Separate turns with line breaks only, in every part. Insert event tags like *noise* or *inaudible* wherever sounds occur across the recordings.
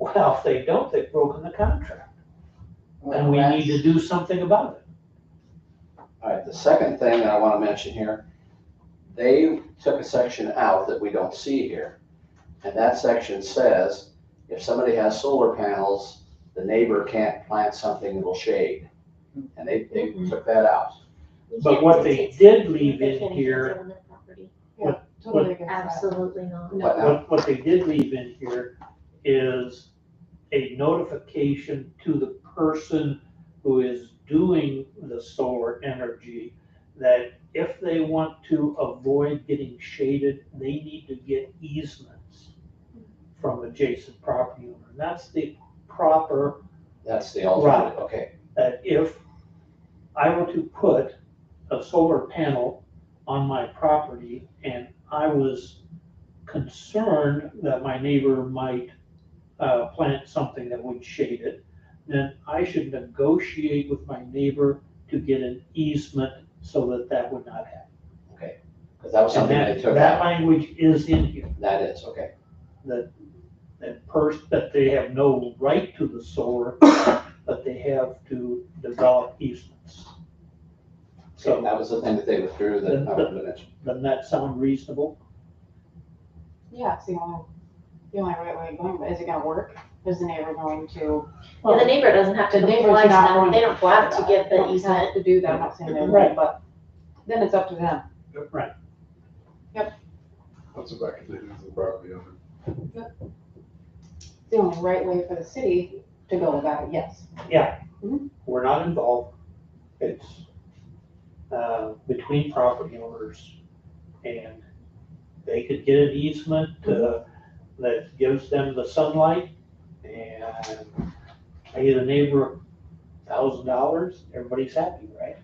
Now, if they don't, they've broken the contract, and we need to do something about it.
All right, the second thing that I want to mention here, they took a section out that we don't see here. And that section says, if somebody has solar panels, the neighbor can't plant something that'll shade. And they, they took that out.
But what they did leave in here,
Totally against that.
Absolutely not.
But now,
what, what they did leave in here is a notification to the person who is doing the solar energy that if they want to avoid getting shaded, they need to get easements from adjacent property owner. And That's the proper
that's the alternative, okay.
that if I were to put a solar panel on my property and I was concerned that my neighbor might uh, plant something that would shade it, then I should negotiate with my neighbor to get an easement so that that would not happen.
Because that was
And
something they
that,
took
that
out.
language is in here,
That is, okay.
that first, that they have no right to the solar, but they have to develop easements. So.
That was the thing that they withdrew that I wanted to mention.
Doesn't that sound reasonable?
Yeah, it's the only, the only right way of going, but is it gonna work? Is the neighbor going to?
Yeah, the neighbor doesn't have to
The neighbor's
comply to
not
that,
going
they don't have to get
They
the
don't have
easement.
To do that, I'm not saying they
Right.
would, but then it's up to them.
Right.
That's what I can do to the property owner.
It's the only right way for the city to go about it, yes.
We're not involved. It's uh, between property owners. And they could get an easement uh, that gives them the sunlight and pay the neighbor a thousand dollars, everybody's happy, right?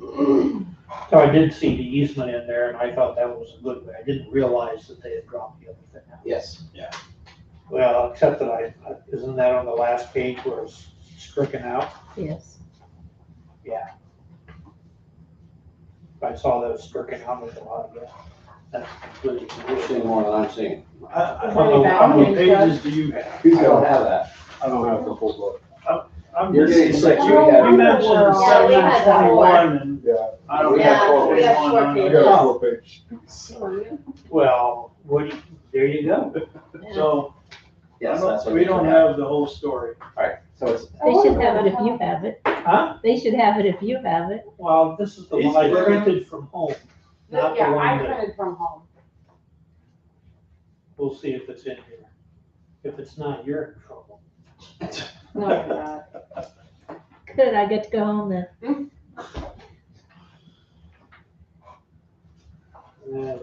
So I did see the easement in there and I thought that was a good way. I didn't realize that they had dropped the other thing out.
Yes,
Well, except that I, isn't that on the last page where it's stricken out?
Yes.
I saw those stricken out with a lot of that.
you're seeing more than I'm seeing.
Really bad.
How many pages do you have?
I don't have that.
I don't have the whole book.
You're getting sick, you
Oh,
have.
You mentioned
Yeah, we had
seven
four.
and. Yeah.
I don't have
Yeah,
four.
we have four
I
pages.
got a four page.
Well, what, do you- there you go.
So, I
Yes,
don't-
that's what.
we
they
don't
took out.
have the whole story.
Alright, so it's,
They should have it if you have it.
Huh?
They should have it if you have it.
Well, this is the one I printed from home. Not the
Yeah, I
one that,
printed from home.
we'll see if it's in here. If it's not, you're in trouble.
No, you're not.
Good, I get to go home then.
Uh,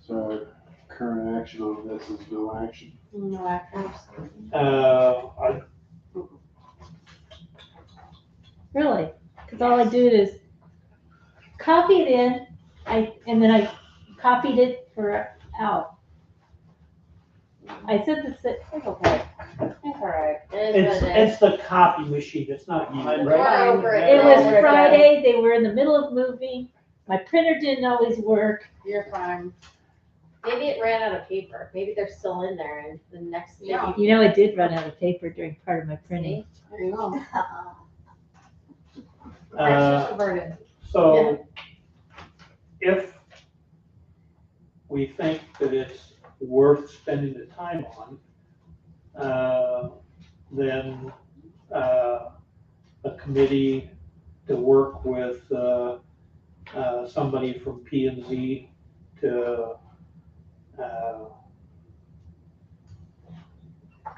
So current action on this is no action.
No, actually.
Uh, I,
Really? Because all I do is copy it in, I, and then I copied it for out. I said this, that-
It's okay. It's all right.
It
it's,
is what it is.
it's the copy machine, it's not you, right?
We're over it.
it was
Yeah.
Friday, they were in the middle of moving, my printer didn't always work.
You're fine.
Maybe it ran out of paper, maybe they're still in there and the next day.
Yeah.
You know, I did run out of paper during part of my printing.
There you go.
Uh,
Extroverted.
So if we think that it's worth spending the time on, uh, then uh, a committee to work with uh, uh, somebody from P and Z to uh,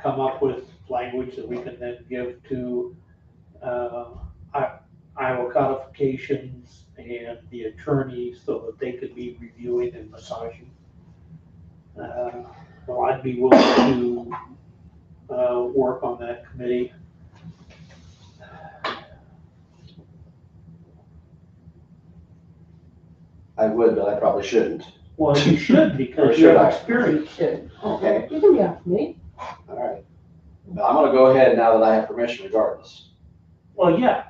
come up with language that we can then give to uh, Iowa codifications and the attorney so that they could be reviewing and massaging. Uh, Well, I'd be willing to uh, work on that committee.
I would, but I probably shouldn't.
Well,
*laughs*
you should
Or
because
should
you're
I?
experienced.
Okay.
You can be off me.
Alright. But I'm gonna go ahead now that I have permission regardless.
Well, yeah,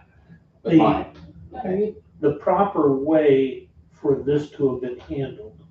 But
The-
fine.
No, you-
the proper way for this to have been handled